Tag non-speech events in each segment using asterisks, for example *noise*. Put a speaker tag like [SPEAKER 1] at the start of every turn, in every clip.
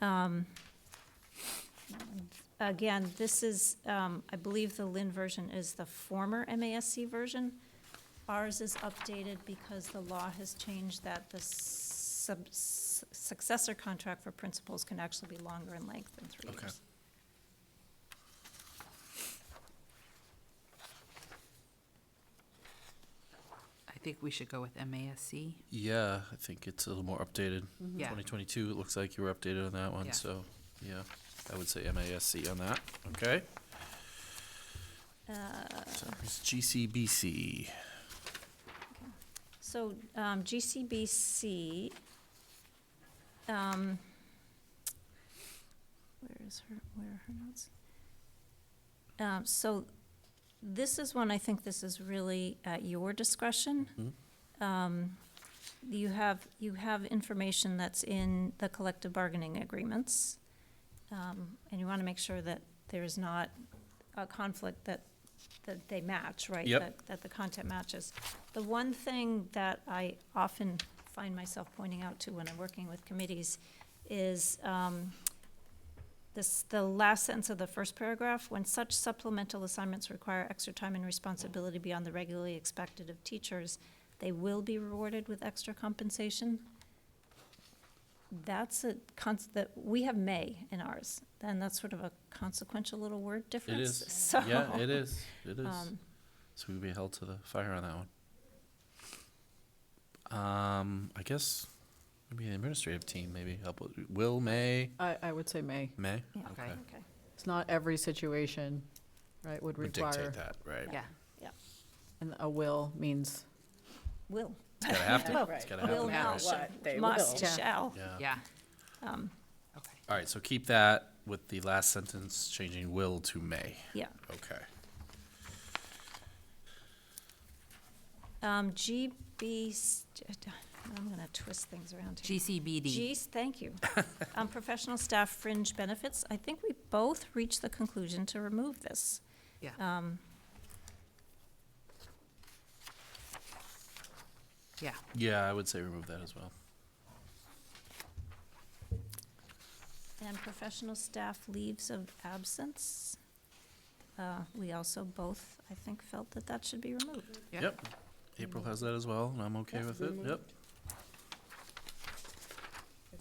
[SPEAKER 1] Um, Again, this is, um, I believe the Lynn version is the former MASC version. Ours is updated because the law has changed that the sub- s- successor contract for principals can actually be longer in length than three
[SPEAKER 2] Okay.
[SPEAKER 1] years.
[SPEAKER 3] I think we should go with MASC.
[SPEAKER 2] Yeah, I think it's a little more updated.
[SPEAKER 3] Yeah.
[SPEAKER 2] 2022, it looks like you were updated on that one,
[SPEAKER 3] Yeah.
[SPEAKER 2] so, yeah, I would say MASC on that, okay?
[SPEAKER 1] Uh,
[SPEAKER 2] So it's GCBC.
[SPEAKER 1] So um, GCBC, um, where is her, where are her notes? Um, So this is one, I think this is really at your discretion. Um, You have, you have information that's in the collective bargaining agreements. um, And you want to make sure that there's not a conflict that, that they match, right?
[SPEAKER 2] Yep.
[SPEAKER 1] That- That the content matches. The one thing that I often find myself pointing out to when I'm working with committees is um, this, the last sentence of the first paragraph, when such supplemental assignments require extra time and responsibility beyond the regularly expected of teachers, they will be rewarded with extra compensation. That's a cons, that, we have may in ours, and that's sort of a consequential little word difference.
[SPEAKER 2] is.
[SPEAKER 1] So.
[SPEAKER 2] Yeah, it is, it is.
[SPEAKER 1] um,
[SPEAKER 2] So we'd be held to the fire on that one. Um, I guess maybe the administrative team, maybe help with, Will, May,
[SPEAKER 4] I, I would say may.
[SPEAKER 2] May?
[SPEAKER 1] Yeah.
[SPEAKER 2] Okay.
[SPEAKER 1] Okay.
[SPEAKER 4] It's not every situation, right, would
[SPEAKER 2] Would
[SPEAKER 4] require,
[SPEAKER 2] dictate that, right?
[SPEAKER 3] Yeah.
[SPEAKER 4] and a will means,
[SPEAKER 1] Will.
[SPEAKER 2] It's gotta have to,
[SPEAKER 5] Right.
[SPEAKER 2] it's gotta happen,
[SPEAKER 1] Will
[SPEAKER 3] now.
[SPEAKER 2] right?
[SPEAKER 3] What?
[SPEAKER 5] They
[SPEAKER 1] Must,
[SPEAKER 4] will.
[SPEAKER 1] shall.
[SPEAKER 2] Yeah.
[SPEAKER 3] Yeah. Um, Okay.
[SPEAKER 2] All right, so keep that with the last sentence changing will to may.
[SPEAKER 1] Yeah.
[SPEAKER 2] Okay.
[SPEAKER 1] Um, GB, st- I'm gonna twist things around here.
[SPEAKER 3] GCBD.
[SPEAKER 1] Geez, thank
[SPEAKER 2] *laughs*
[SPEAKER 1] you. Um, professional staff fringe benefits, I think we both reached the conclusion to remove this.
[SPEAKER 3] Yeah.
[SPEAKER 1] Um,
[SPEAKER 3] Yeah.
[SPEAKER 2] Yeah, I would say remove that as well.
[SPEAKER 1] and professional staff leaves of absence. Uh, we also both, I think, felt that that should be removed.
[SPEAKER 3] Yeah.
[SPEAKER 2] Yep. April has that as well, and I'm okay with it. Yep.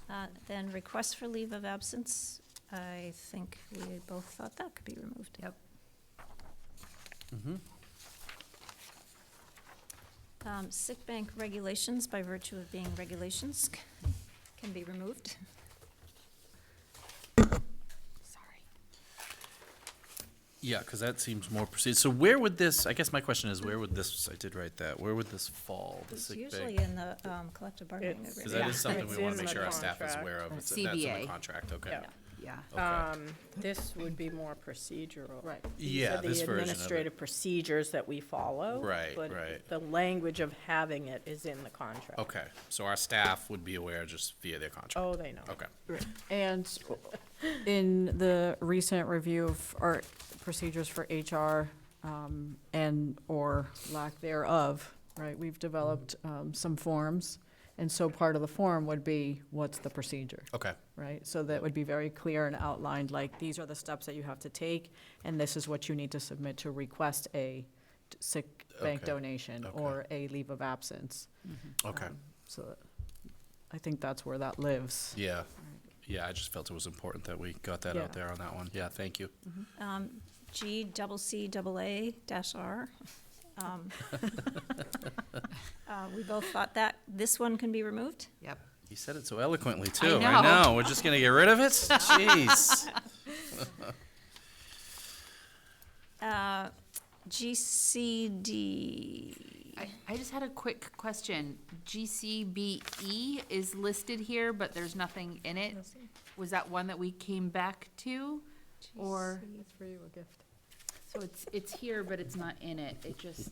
[SPEAKER 1] Uh, then requests for leave of absence, I think we both thought that could be removed. Yep.
[SPEAKER 2] Mhm.
[SPEAKER 1] Um, sick bank regulations, by virtue of being regulations, can be removed.
[SPEAKER 3] Sorry.
[SPEAKER 2] Yeah, because that seems more precise. So where would this, I guess my question is, where would this, I did write that, where would this fall? the
[SPEAKER 1] It's
[SPEAKER 2] sick
[SPEAKER 1] usually
[SPEAKER 2] bank?
[SPEAKER 1] in the um, collective bargaining
[SPEAKER 5] It's-
[SPEAKER 2] Because
[SPEAKER 1] agreement.
[SPEAKER 2] that
[SPEAKER 3] Yeah.
[SPEAKER 2] is something
[SPEAKER 5] It's
[SPEAKER 2] we want
[SPEAKER 5] in
[SPEAKER 2] to make
[SPEAKER 5] the
[SPEAKER 2] sure our staff is
[SPEAKER 5] contract.
[SPEAKER 2] aware of.
[SPEAKER 3] That's
[SPEAKER 2] It's- That's in the
[SPEAKER 3] CBA.
[SPEAKER 2] contract, okay.
[SPEAKER 5] Yeah.
[SPEAKER 3] Yeah.
[SPEAKER 2] Okay.
[SPEAKER 5] Um, this would be more procedural.
[SPEAKER 4] right.
[SPEAKER 2] Yeah, this
[SPEAKER 5] These are the
[SPEAKER 2] version of it.
[SPEAKER 5] administrative procedures that we follow.
[SPEAKER 2] Right,
[SPEAKER 5] but
[SPEAKER 2] right. Oh.
[SPEAKER 5] The language of having it is in the contract.
[SPEAKER 2] Okay, so our staff would be aware just via their contract.
[SPEAKER 5] Oh, they know.
[SPEAKER 2] Okay.
[SPEAKER 4] And in the recent review of our procedures for HR um, and or lack thereof, right, we've developed um, some forms. And so part of the form would be, what's the procedure?
[SPEAKER 2] Okay,
[SPEAKER 4] right? So that would be very clear and outlined, like, these are the steps that you have to take, and this is what you need to submit to request a d- sick bank
[SPEAKER 2] Okay.
[SPEAKER 4] donation
[SPEAKER 2] Okay.
[SPEAKER 4] or a leave of absence.
[SPEAKER 3] Mm-hmm.
[SPEAKER 2] okay.
[SPEAKER 4] Um, So that- I think that's where that lives.
[SPEAKER 2] Yeah. Yeah, I just felt it was important that we got that
[SPEAKER 4] Yeah.
[SPEAKER 2] out there on that one. Yeah, thank you.
[SPEAKER 1] Um, G double C double A dash R.
[SPEAKER 3] *laughs*
[SPEAKER 1] Um, uh, We both thought that, this one can be removed?
[SPEAKER 3] Yep.
[SPEAKER 2] You said it so eloquently, too. I
[SPEAKER 3] know.
[SPEAKER 2] know. We're just going to get rid of it? Jeez.
[SPEAKER 1] Uh, GCD,
[SPEAKER 3] I, I just had a quick question. GCBE E is listed here, but there's nothing in it. Was that one that we came back to? Or,
[SPEAKER 4] That's for you, a gift.
[SPEAKER 3] so it's, it's here, but it's not in it. It just,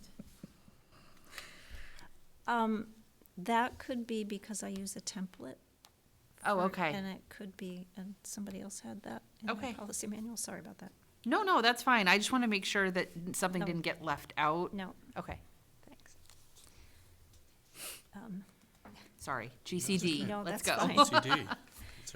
[SPEAKER 1] um, that could be because I use a template.
[SPEAKER 3] oh,
[SPEAKER 1] for-
[SPEAKER 3] okay.
[SPEAKER 1] And it could be, and somebody else had that in
[SPEAKER 3] Okay.
[SPEAKER 1] the policy manual, sorry about that.
[SPEAKER 3] No, no, that's fine. I just want to make sure that something
[SPEAKER 1] No.
[SPEAKER 3] didn't get left out.
[SPEAKER 1] No,
[SPEAKER 3] Okay,
[SPEAKER 1] thanks. Um,
[SPEAKER 3] sorry. GCD,
[SPEAKER 1] No,
[SPEAKER 3] let's
[SPEAKER 1] that's
[SPEAKER 3] E. go.
[SPEAKER 1] fine.
[SPEAKER 2] CD.